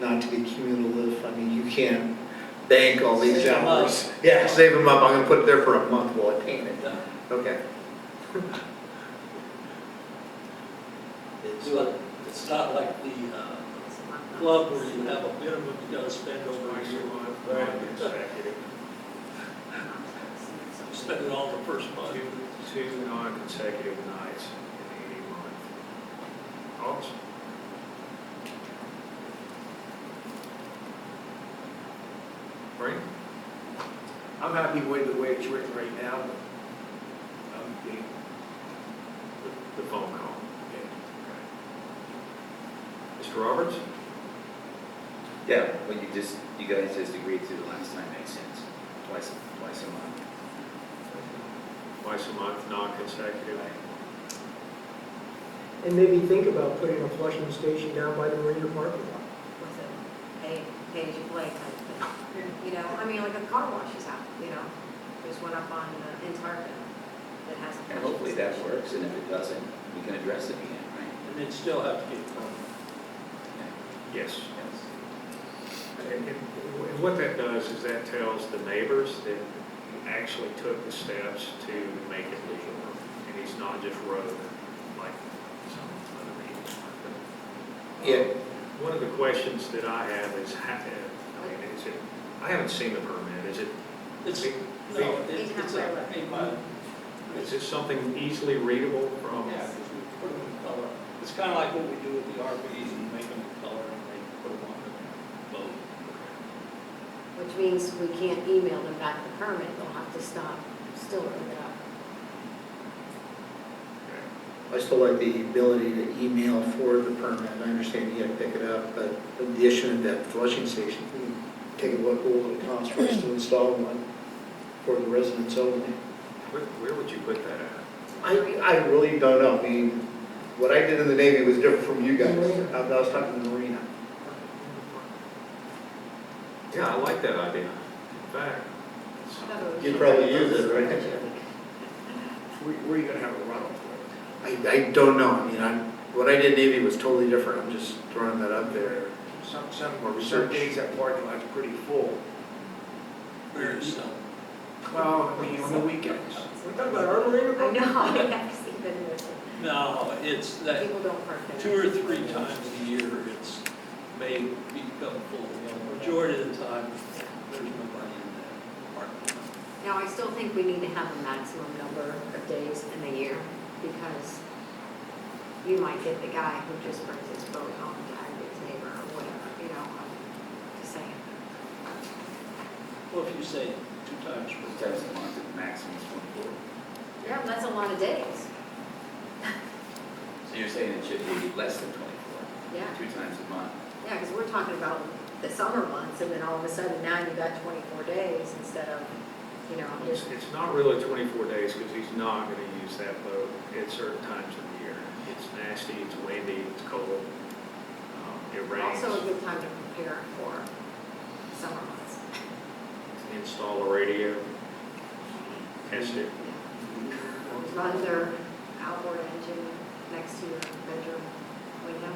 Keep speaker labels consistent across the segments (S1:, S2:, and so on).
S1: not to be cumulative. I mean, you can't bank all these
S2: Save 'em up.
S1: hours. Yeah, save them up, I'm gonna put it there for a month while I paint it, okay.
S2: It's, uh, it's not like the uh, club where you have a minimum you gotta spend over a year. You Spend it all in the first month.
S3: Two, two non-consecutive nights in any month. August. Frank?
S4: I'm happy with the way it's written right now, but um, I'm being,
S3: The, the phone call.
S4: yeah.
S3: Mr. Roberts?
S5: Yeah, what you just, you guys just agreed to the last time makes sense, twice, twice a month.
S3: Twice a month, non-consecutive.
S6: And maybe think about putting a flushing station down by the marina parking lot.
S7: was a pay, pay as you play type thing. You know, I mean, like a car wash is out, you know, there's one up on uh, in Tarpon that has. a
S5: And hopefully that
S7: flushing
S5: works, and if it doesn't, we can address it again, right?
S2: And then still have to get a permit.
S3: Yes.
S5: Yes.
S3: And, and what that does is that tells the neighbors that he actually took the steps to make it legal. And he's not just road like some other people.
S1: Yeah.
S3: uh, One of the questions that I have is, ha- I mean, is it, I haven't seen the permit. Is it,
S2: It's, no, it- it's a, hey, my,
S3: is it something easily readable from?
S2: yeah, 'cause we put them in color. It's kinda like what we do with the RVs, and make them in color and they put them on the boat.
S7: station, Which means we can't email them back the permit, they'll have to stop, still rip it up.
S1: I still like the ability to email for the permit, I understand you gotta pick it up, but the addition of that flushing station, we can take a look, at what it costs for us to install one for the residents only.
S3: Where, where would you put that at?
S1: I, I really don't know, I mean, what I did in the Navy was different from you guys, I I was talking to the Marina.
S3: Yeah, I like that idea. In fact,
S1: You'd probably use it, right?
S4: Where, where are you gonna have a runoff for
S1: I, I don't know, I mean, I'm, what I did in Navy was totally different, I'm just throwing that up there.
S4: it? Some, some,
S1: More
S4: some
S1: research.
S4: days that parking lot's pretty full.
S2: Very simple.
S4: Well, I mean, on the weekends.
S6: We're talking about our marina
S7: I
S6: parking lot?
S7: know, I guess even with,
S2: No, it's that,
S7: people don't park there.
S2: two or three times a year, it's may become full. The Majority of the time, there's nobody in that parking lot.
S7: Now, I still think we need to have a maximum number of days in the year, because you might get the guy who just brings his boat home to hire his neighbor or whatever, you know, I'm just saying.
S2: Well, if you say two times per
S5: Twice
S2: day,
S5: a month, at maximum is twenty-four.
S7: Yeah, that's a lot of days,
S5: So you're saying it should be less than twenty-four,
S7: yeah,
S5: two times a month?
S7: yeah, because we're talking about the summer months, and then all of a sudden, now you got twenty-four days instead of, you know,
S3: It's,
S7: just,
S3: it's not really 24 days because he's not going to use that boat at certain times of the year. It's nasty, it's windy, it's cold, um, it rains.
S7: also a good time to prepare for summer months.
S3: Install a radio, test it.
S7: run their outboard engine next to your bedroom window,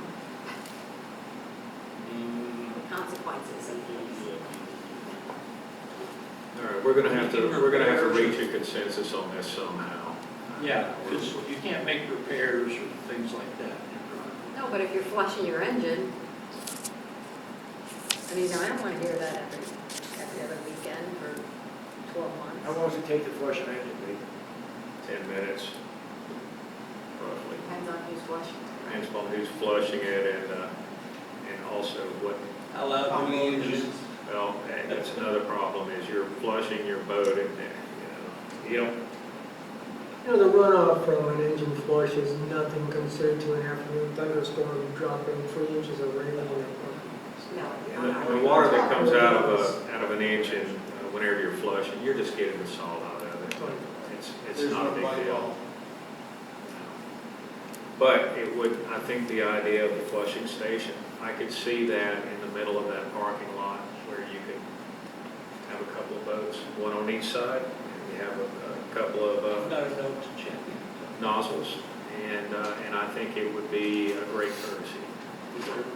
S2: Mm.
S7: consequences.
S3: All right, we're going to have to, we're going to have to reach a consensus on this somehow.
S2: Yeah, because you can't make repairs or things like that.
S7: No, but if you're flushing your engine, I mean, I don't want to hear that every, every other weekend for twelve
S4: How
S7: months.
S4: long does it take to flush an engine, Lee?
S3: 10 minutes, roughly.
S7: Depends on who's flushing.
S3: Depends on who's flushing it and, uh, and also what
S2: How loud do you use?
S3: Well, and that's another problem, is you're flushing your boat and, uh, you know, you don't,
S6: You know, the runoff from an engine flush is nothing compared to an afternoon thunderstorm dropping three inches of rain on that parking lot.
S7: No.
S3: and
S7: not
S3: the- and the water that comes out of a, out of an engine, uh, whenever you're flushing, you're just getting the salt out of it. It's, it's
S2: There's
S3: not a
S2: no light
S3: big deal.
S2: bulb.
S3: But it would, I think the idea of the flushing station, I could see that in the middle of that parking lot where you could have a couple of boats, one on each side, and you have a, a couple of, uh,
S2: I've got a note to check. in.
S3: nozzles, and, uh, and I think it would be a great courtesy.
S2: Is there-